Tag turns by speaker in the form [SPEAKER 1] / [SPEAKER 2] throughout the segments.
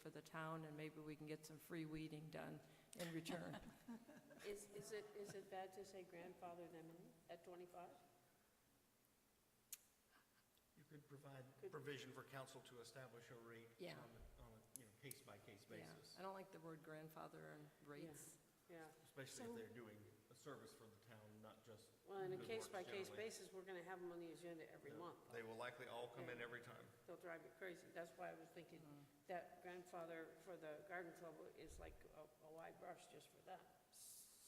[SPEAKER 1] for the town, and maybe we can get some free weeding done in return.
[SPEAKER 2] Is, is it, is it bad to say grandfather them in at 25?
[SPEAKER 3] You could provide
[SPEAKER 2] Could-
[SPEAKER 3] provision for council to establish a rate
[SPEAKER 1] Yeah.
[SPEAKER 3] on, a- on a, you know, case-by-case
[SPEAKER 1] Yeah,
[SPEAKER 3] basis,
[SPEAKER 1] I don't like the word grandfather and rates.
[SPEAKER 2] Yeah,
[SPEAKER 3] especially if
[SPEAKER 4] So-
[SPEAKER 3] they're doing a service for the town, not just.
[SPEAKER 2] well, on a
[SPEAKER 3] good works
[SPEAKER 2] case-by-case
[SPEAKER 3] generally.
[SPEAKER 2] basis, we're gonna have them on the agenda every
[SPEAKER 3] No,
[SPEAKER 2] month.
[SPEAKER 3] They will likely all come in
[SPEAKER 2] Yeah.
[SPEAKER 3] every time.
[SPEAKER 2] They'll drive you crazy. That's why I was thinking that grandfather for the garden club is like a a wide brush just for that.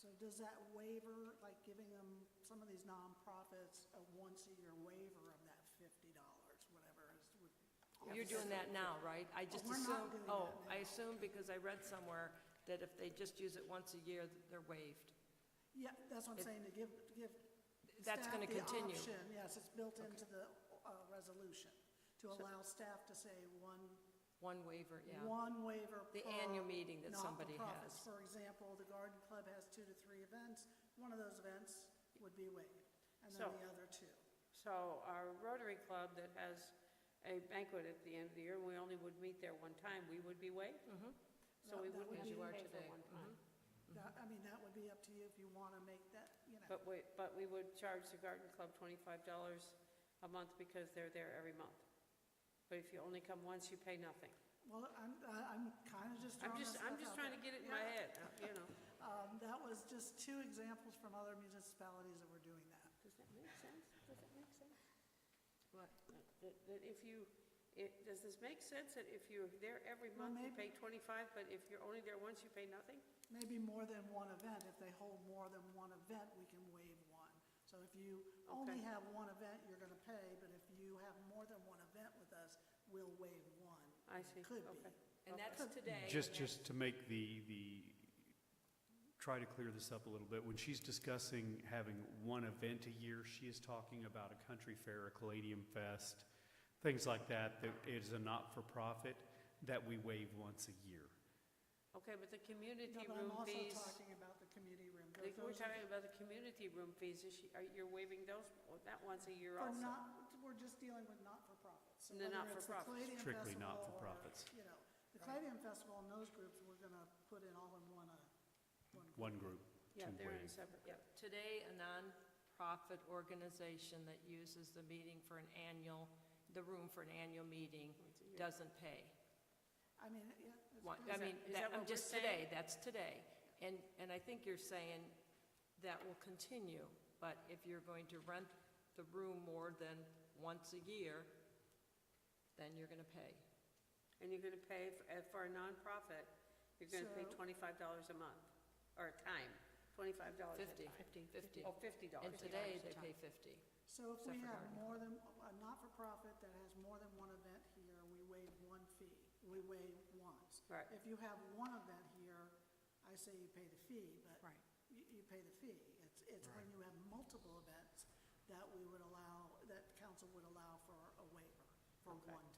[SPEAKER 4] So does that waiver, like giving them, some of these nonprofits, a once-a-year waiver of that fifty dollars, whatever is with.
[SPEAKER 1] You're doing that now, right? I just
[SPEAKER 4] We're not
[SPEAKER 1] assume,
[SPEAKER 4] doing
[SPEAKER 1] oh,
[SPEAKER 4] that
[SPEAKER 1] I
[SPEAKER 4] now.
[SPEAKER 1] assume because I read somewhere that if they just use it once a year, they're waived.
[SPEAKER 4] Yeah, that's what I'm
[SPEAKER 1] It-
[SPEAKER 4] saying, to give, to give
[SPEAKER 1] That's
[SPEAKER 4] staff
[SPEAKER 1] gonna
[SPEAKER 4] the
[SPEAKER 1] continue.
[SPEAKER 4] option, Yes, it's built into the, uh, resolution, to allow staff to say one,
[SPEAKER 1] One waiver, yeah.
[SPEAKER 4] one waiver per.
[SPEAKER 1] The annual meeting that somebody has.
[SPEAKER 4] not-for-profits. For example, the garden club has two to three events, one of those events would be waived, and then
[SPEAKER 2] So-
[SPEAKER 4] the other two.
[SPEAKER 1] Mm-hmm.
[SPEAKER 2] So our Rotary Club that has a banquet at the end of the year, we only would meet there one time, we would be waived? So we
[SPEAKER 4] That-
[SPEAKER 2] wouldn't
[SPEAKER 4] that would
[SPEAKER 2] have
[SPEAKER 4] be-
[SPEAKER 2] to
[SPEAKER 4] As you are
[SPEAKER 2] pay for
[SPEAKER 1] today,
[SPEAKER 2] one time.
[SPEAKER 4] That, I mean, that would be up to you if you wanna make that, you know.
[SPEAKER 2] But we, but we would charge the garden club twenty-five dollars a month because they're there every month. But if you only come once, you pay nothing.
[SPEAKER 4] Well, I'm, I- I'm kind of just
[SPEAKER 2] I'm
[SPEAKER 4] throwing this
[SPEAKER 2] just,
[SPEAKER 4] stuff
[SPEAKER 2] I'm
[SPEAKER 4] out
[SPEAKER 2] just trying to
[SPEAKER 4] there.
[SPEAKER 2] get it in my
[SPEAKER 4] Yeah.
[SPEAKER 2] head, uh, you know.
[SPEAKER 4] Um, that was just two examples from other municipalities that were doing that.
[SPEAKER 2] Does that make sense? Does that make sense?
[SPEAKER 1] What?
[SPEAKER 2] That, that if you, it, does this make sense that if you're there every
[SPEAKER 4] Well,
[SPEAKER 2] month, you pay
[SPEAKER 4] maybe-
[SPEAKER 2] twenty-five, but if you're only there once, you pay nothing?
[SPEAKER 4] Maybe more than one event, if they hold more than one event, we can waive one. So if you only
[SPEAKER 2] Okay.
[SPEAKER 4] have one event, you're gonna pay, but if you have more than one event with us, we'll waive one.
[SPEAKER 2] I see,
[SPEAKER 4] Could be.
[SPEAKER 2] okay.
[SPEAKER 1] And that's today.
[SPEAKER 5] Just, just to make the, the, try to clear this up a little bit, when she's discussing having one event a year, she is talking about a country fair, a Caladium Fest, things like that, that is a not-for-profit that we waive once a year.
[SPEAKER 2] Okay, but the
[SPEAKER 4] No,
[SPEAKER 2] community
[SPEAKER 4] but I'm
[SPEAKER 2] room
[SPEAKER 4] also
[SPEAKER 2] fees,
[SPEAKER 4] talking about the community room.
[SPEAKER 2] the-
[SPEAKER 4] Those
[SPEAKER 2] we're
[SPEAKER 4] are-
[SPEAKER 2] talking about the community room fees, is she, are, you're waiving those, well, that once a year
[SPEAKER 4] For
[SPEAKER 2] also?
[SPEAKER 4] not, we're just dealing with not-for-profits. So
[SPEAKER 2] The
[SPEAKER 4] whether it's
[SPEAKER 2] not-for-profits.
[SPEAKER 4] Palladium
[SPEAKER 5] Strictly
[SPEAKER 4] Festival or,
[SPEAKER 5] not-for-profits.
[SPEAKER 4] You know, the Palladium Festival and those groups, we're gonna put in all in one, uh, one. group.
[SPEAKER 5] One group to
[SPEAKER 2] Yeah, they're in a
[SPEAKER 5] waive.
[SPEAKER 2] separate, yeah.
[SPEAKER 1] Today, a nonprofit organization that uses the meeting for an annual, the room for an annual meeting doesn't pay.
[SPEAKER 4] I mean, yeah. that's
[SPEAKER 1] One-
[SPEAKER 4] good.
[SPEAKER 1] I
[SPEAKER 2] that-
[SPEAKER 1] mean,
[SPEAKER 2] is
[SPEAKER 1] that-
[SPEAKER 2] that what
[SPEAKER 1] I'm
[SPEAKER 2] we're
[SPEAKER 1] just
[SPEAKER 2] saying?
[SPEAKER 1] today, that's today. And, and I think you're saying that will continue, but if you're going to rent the room more than once a year, then you're going to pay.
[SPEAKER 2] And you're gonna pay, f- uh, for a nonprofit, you're gonna pay
[SPEAKER 4] So-
[SPEAKER 2] twenty-five dollars a month, or a time, twenty-five dollars a
[SPEAKER 1] Fifty.
[SPEAKER 2] time.
[SPEAKER 1] Fifty. Fifty.
[SPEAKER 2] Oh, fifty dollars.
[SPEAKER 1] And today, they pay 50.
[SPEAKER 4] So if
[SPEAKER 1] Except
[SPEAKER 4] we
[SPEAKER 1] for
[SPEAKER 4] have
[SPEAKER 1] garden.
[SPEAKER 4] more than, a not-for-profit that has more than one event here, we waive one fee. We waive once.
[SPEAKER 2] Right.
[SPEAKER 4] If you have one event here, I say you pay the fee, but
[SPEAKER 2] Right.
[SPEAKER 4] you, you pay the fee. It's, it's when you have multiple events that we would allow, that council would allow for a waiver for
[SPEAKER 2] Okay.
[SPEAKER 4] one time.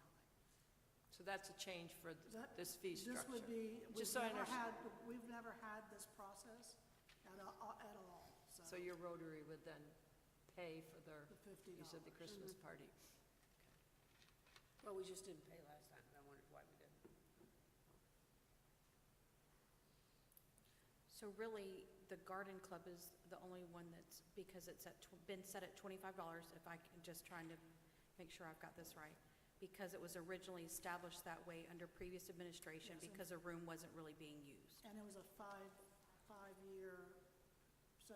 [SPEAKER 1] So that's a change for th-
[SPEAKER 4] That-
[SPEAKER 1] this fee structure.
[SPEAKER 4] This would be, we've
[SPEAKER 1] Just so I
[SPEAKER 4] never
[SPEAKER 1] understand.
[SPEAKER 4] had, we've never had this process at, a- at all,
[SPEAKER 1] So your Rotary would then pay for their,
[SPEAKER 4] The fifty
[SPEAKER 1] you said the
[SPEAKER 4] dollars.
[SPEAKER 1] Christmas party.
[SPEAKER 2] Well, we just didn't pay last time, and I wondered why we didn't.
[SPEAKER 6] So really, the garden club is the only one that's, because it's at, tw- been set at twenty-five dollars, if I can, just trying to make sure I've got this right, because it was originally established that way under previous administration,
[SPEAKER 4] Yes, and-
[SPEAKER 6] because the room wasn't really being used.
[SPEAKER 4] And it was a five, five-year, so,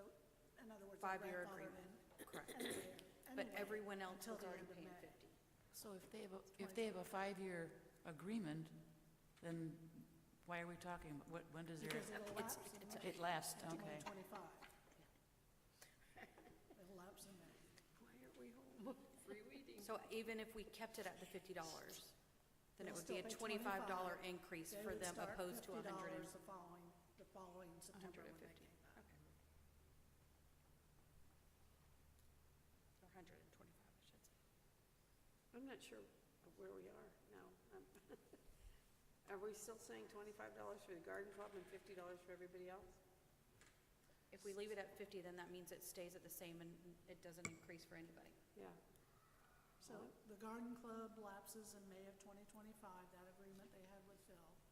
[SPEAKER 4] in other words.
[SPEAKER 6] Five-year
[SPEAKER 4] grandfathered
[SPEAKER 6] agreement,
[SPEAKER 4] in
[SPEAKER 6] correct.
[SPEAKER 4] anyway-
[SPEAKER 6] But
[SPEAKER 4] anyway,
[SPEAKER 6] everyone else
[SPEAKER 4] until
[SPEAKER 6] was
[SPEAKER 4] the
[SPEAKER 6] already
[SPEAKER 4] end of
[SPEAKER 6] paying
[SPEAKER 4] May.
[SPEAKER 6] fifty.
[SPEAKER 7] So if they have, a if they have a five-year agreement, then why are we talking, about- what, when does
[SPEAKER 4] Because
[SPEAKER 7] their,
[SPEAKER 4] it'll
[SPEAKER 7] it's-
[SPEAKER 4] lapse in May.
[SPEAKER 7] it lasts,
[SPEAKER 4] Until May
[SPEAKER 7] okay.
[SPEAKER 4] twenty-five. It'll lapse in May.
[SPEAKER 2] Why aren't we home? Free weeding.
[SPEAKER 6] So even if we kept it at the fifty dollars, then
[SPEAKER 4] They'll
[SPEAKER 6] it would be a
[SPEAKER 4] still pay
[SPEAKER 6] twenty-five dollar
[SPEAKER 4] $25.
[SPEAKER 6] increase
[SPEAKER 4] They
[SPEAKER 6] for
[SPEAKER 4] would
[SPEAKER 6] them
[SPEAKER 4] start
[SPEAKER 6] opposed to a hundred and
[SPEAKER 4] $50 the following, the following September when they
[SPEAKER 6] 150.
[SPEAKER 4] came back.
[SPEAKER 6] Or 125, I should say.
[SPEAKER 2] I'm not sure where we are now. I'm- Are we still saying twenty-five dollars for the garden club and fifty dollars for everybody else?
[SPEAKER 6] If we leave it at 50, then that means it stays at the same and it doesn't increase for anybody.
[SPEAKER 2] Yeah.
[SPEAKER 4] So the garden club lapses in May of twenty twenty-five, that